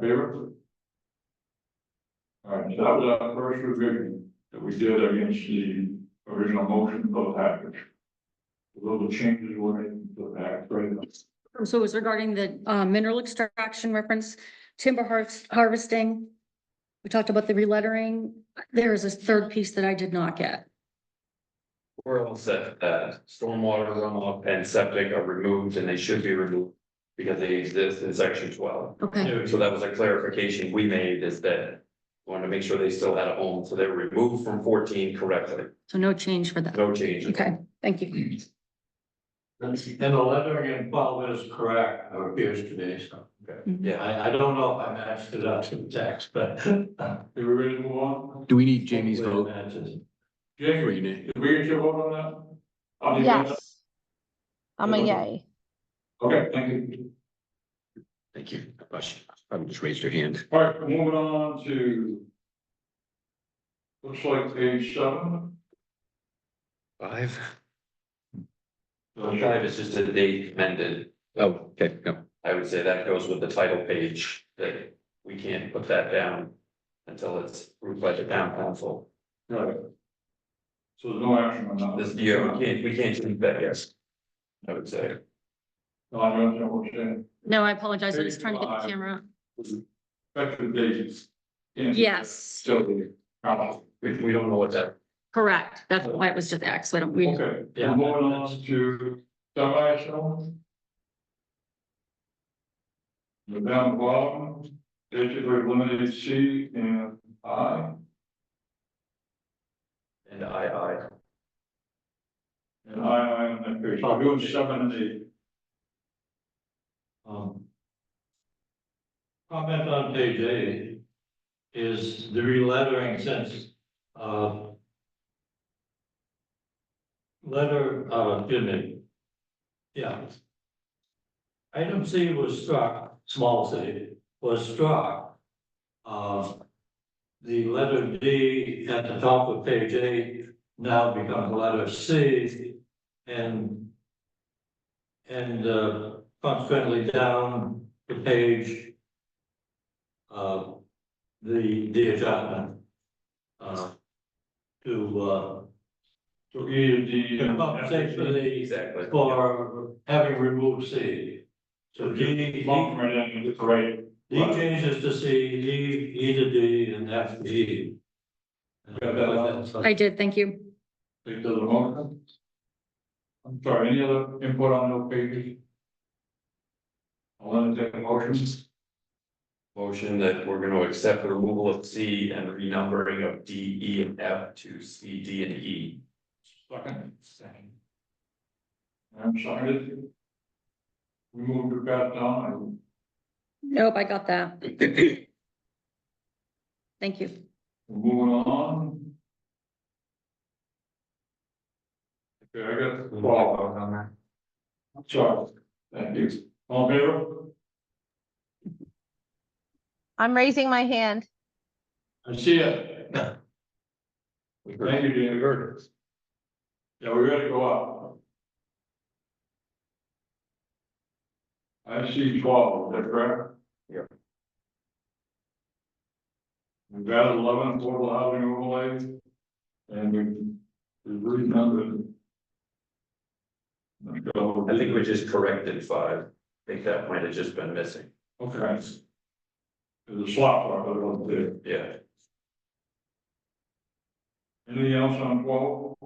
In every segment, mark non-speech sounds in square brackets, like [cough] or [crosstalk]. favor? All right, so that was our first revision that we did against the original motion of the package. Little changes were made to that, right? Um, So it was regarding the uh, mineral extraction reference, timber harvest, harvesting. We talked about the relettering. There is a third piece that I did not get. We're all set, that stormwater runoff and septic are removed and they should be removed because they exist in section twelve. Okay, So that was a clarification we made is that wanted to make sure they still had a home, so they're removed from fourteen correctly, so no change for that. no change. Okay, thank you. And the lettering in twelve is correct, or appears to be, so. Yeah, I, I don't know if I matched it up to the text, but. Did we really move on? Do we need Jamie's vote? Or Jamie, you need- did we get your vote on that? I'll leave that. Yes. I'm a yay. Okay, thank you. Thank you. Gosh, Probably just raised your hand. All right, we're moving on to. Looks like page seven. Five? so five is just a date amended. Oh, okay, no. I would say that goes with the title page, that we can't put that down until it's approved by the town council. Right. So there's no action on that. This year, we can't, we can't change that, yes. I would say. No, I don't know what you're saying. No, I apologize. I was trying to get the camera. Effective dates. Yes, So, uh, We, we don't know what that, correct. That's why it was just X. We don't, we, okay, Yeah. we're going on to semi-shown. We're down the bottom, digit rate limited C and I, and I, and I, I on that page, I'm doing seven and eight. Um, Comment on page eight is the relettering since, uh, letter, uh, excuse me. Yeah. Item C was struck, small c, was struck. Uh, the letter D at the top of page eight now becomes letter C and and, uh, consequently down the page. Uh, the, the adjustment. Uh, to, uh, So E and D. and- compensate for I. the, Exactly. for having removed C. So D, Long D, right in, it's right. D changes to C, E, E to D, and F to E. Got that one? I did, thank you. Take those along. I'm sorry, any other input on those pages? I'll entertain the motions. Motion that we're gonna accept the removal of C and renumbering of D, E, and F to C, D, and E. Second. I'm sorry. We moved it back down. Nope, I got [clears throat] that. Thank you. We're Moving on. Okay, I got the ball. I'm sorry. Thank you. All in favor? I'm raising my hand. I see it. We Thank heard- you, Jimmy Curtis. Yeah, we gotta go up. I see twelve, is that correct? Yep. We've got eleven affordable housing overlays, and we, we've renumbered. I think we just corrected five. I think that might have just been missing. Okay. There's a slot for it up there. Yeah. Anything else on twelve?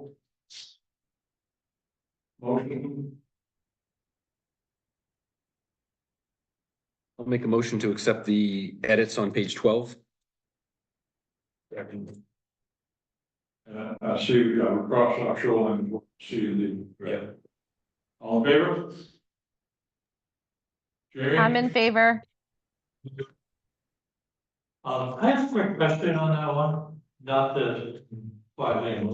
Motion, I'll make a motion to accept the edits on page twelve. and Uh, I- I see we got a cross off shoreline, see the. Yeah. All in favor? Jamie? I'm in favor. Uh, I have a quick question on that one, not the five name,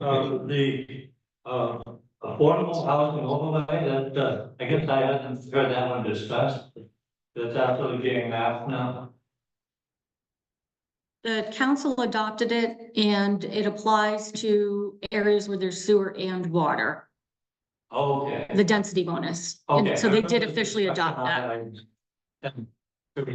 uh, the, uh, affordable housing overlay that, uh, I guess I hadn't heard that one discussed. That's actually being mapped now. The council adopted it and it applies to areas where there's sewer and water, Okay. the density bonus. Okay. [laughs] And so they did officially adopt that. And